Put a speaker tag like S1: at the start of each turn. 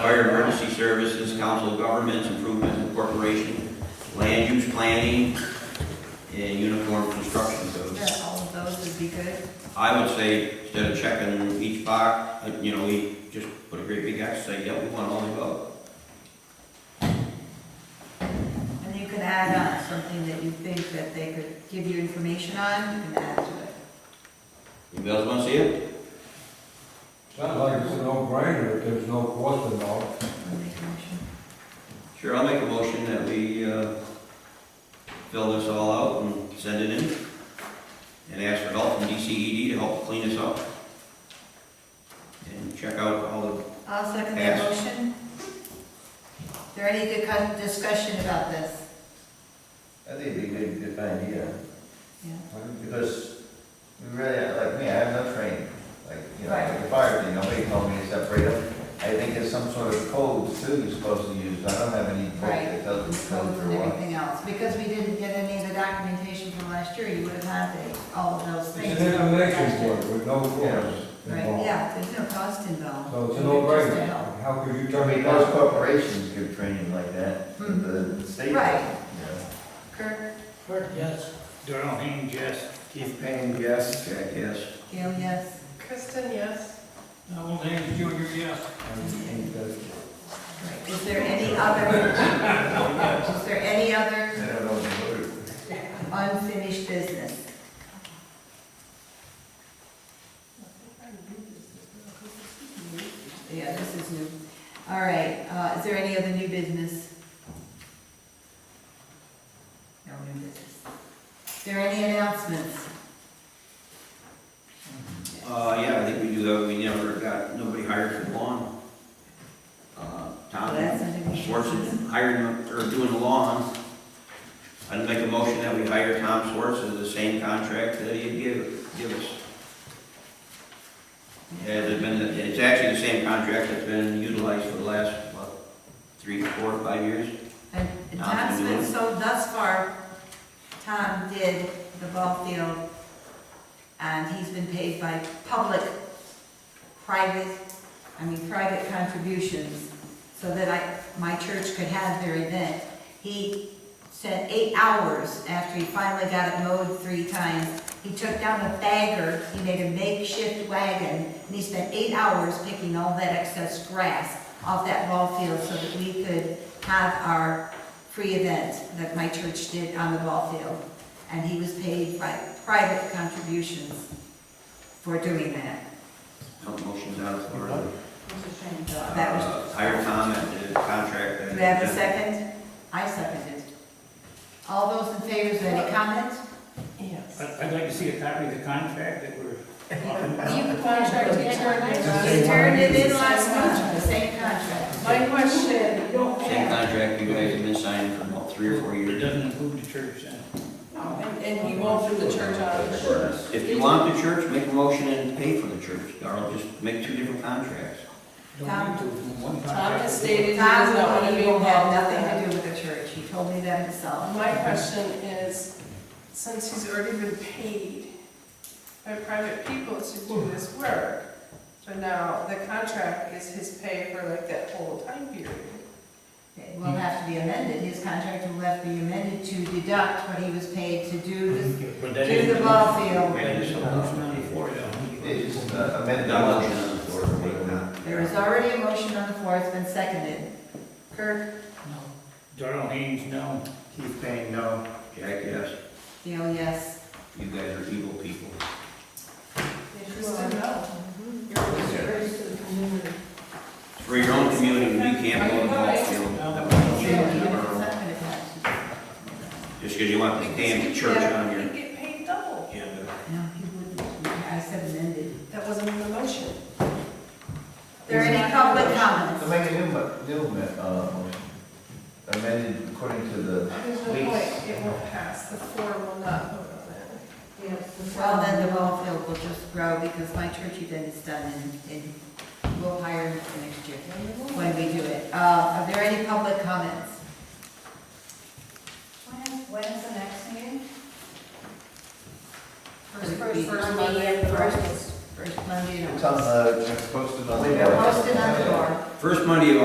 S1: fire emergency services, council of governments, improvements and corporation, land use planning, and uniform construction codes.
S2: Yeah, all of those would be good.
S1: I would say, instead of checking each box, uh, you know, we just put a great big X, say, yep, we want all the above.
S2: And you can add on something that you think that they could give you information on, you can add to it.
S1: Anybody else wanna see it?
S3: Sounds like it's a no-brainer if there's no cost involved.
S2: I'll make a motion.
S1: Sure, I'll make a motion that we, uh, fill this all out and send it in. And ask for help from DCED to help clean this up. And check out all the,
S2: I'll second that
S1: Pass.
S2: motion. Is there any good con- discussion about this?
S4: I think it'd be a good, good idea,
S2: Yeah.
S4: because we really, like me, I have no training, like, you know,
S2: Right.
S4: like the fire thing, nobody told me to separate them. I think there's some sort of code too you're supposed to use, I don't have any book
S2: Right.
S4: that tells me
S2: Codes
S4: code
S2: and
S4: or what.
S2: everything else, because we didn't get any of the documentation from last year, you would have had the- all of those things.
S3: It's an information board with no
S4: Yeah.
S3: cost
S2: Right,
S3: involved.
S2: yeah, there's no cost involved.
S3: So it's a
S2: Just to help.
S3: no-brainer. How could you
S4: I
S3: turn
S4: mean,
S3: it
S4: those
S3: down?
S4: corporations give training like that, but the state.
S2: Hmm. Right.
S4: Yeah.
S2: Kirk,
S5: yes. Darrell Haines, yes.
S4: Keith Payne, yes.
S1: check, yes.
S2: Gail, yes.
S6: Kristen, yes.
S5: Donald Haynes Junior, yes.
S2: Right. Is there any other, is there any other
S4: I don't know the word.
S2: unfinished business? Yeah, this is new. All right, uh, is there any other new business? No new business. Is there any announcements?
S1: Uh, yeah, I think we do that, we never got, nobody hired for the lawn. Uh,
S2: Well,
S1: Tom
S2: that's something we should-
S1: Swartz is hiring, or doing the lawn. I'd make a motion that we hire Tom Swartz as the same contract that he had give, give us. Yeah, it's been, it's actually the same contract that's been utilized for the last, what, three, four, five years?
S2: And and Tom's been, so thus far, Tom did the ball field, and he's been paid by public, private, I mean, private contributions, so that I, my church could have their event. He sent eight hours after he finally got it mowed three times. He took down a bagger, he made a makeshift wagon, and he spent eight hours picking all that excess grass off that ball field so that we could have our free event that my church did on the ball field. And he was paid by private contributions for doing that.
S1: No motion's out of order.
S2: And, uh, That was,
S1: Uh, hire Tom at the contract. that-
S2: do we have a second? I seconded. All those in favor, is there any comment?
S6: Yes.
S5: I- I'd like to see a copy of the contract that we're talking about.
S6: You contract
S2: He turned it in last month, the same contract.
S6: My question, you don't
S1: Same
S6: have,
S1: contract you guys have been signing for about three or four
S5: It
S1: years.
S5: doesn't include the church then.
S6: No, and, and you won't do the church out of insurance.
S1: If you want the church, make a motion and pay for the church, or just make two different contracts.
S5: Don't need to, one
S6: Tom
S5: contract.
S6: has stated he does not want
S2: Tom,
S6: to be
S2: he will have
S6: involved
S2: nothing
S6: in that.
S2: to do with the church, he told me that himself.
S6: My question is, since he's already been paid by private people to do this work, so now the contract is his pay for like that whole time period.
S2: It
S6: Hmm.
S2: will have to be amended, his contract will have to be amended to deduct what he was paid to do this,
S5: But that
S2: do the
S5: is-
S2: ball field.
S1: That is
S5: That is a motion on the floor, though.
S4: It's just uh, amend the
S1: That
S4: motion
S1: motion on
S4: on
S1: the floor, make that.
S2: There is already a motion on the floor, it's been seconded. Kirk?
S5: Darrell Haynes, no.
S4: Keith Payne, no.
S1: Jack, yes,
S2: Gail, yes.
S1: you guys are evil people.
S6: Kristen, no.
S1: It's For your own community, you can't go to the ball field. That was a change in our own. Just because you want the damn church on
S6: You
S1: your
S6: get paid double.
S1: agenda.
S2: No, he wouldn't, I said amended.
S6: That wasn't in the motion.
S2: There any public
S4: So
S2: comments?
S4: make a new, mo- new, ma- uh, motion. amended according to the,
S6: There's no
S4: Please.
S6: point, it won't pass, the floor will not vote on it.
S2: Well, then the ball field will just grow because my church event is done and, and we'll hire him for next year when we do it. Uh, are there any public comments?
S7: When's the next meeting?
S2: First, first, first
S7: Monday of the month.
S2: First Monday in
S4: it's
S2: August.
S4: uh, on the, it's posted on the.
S2: Posted on the door.
S1: First Monday of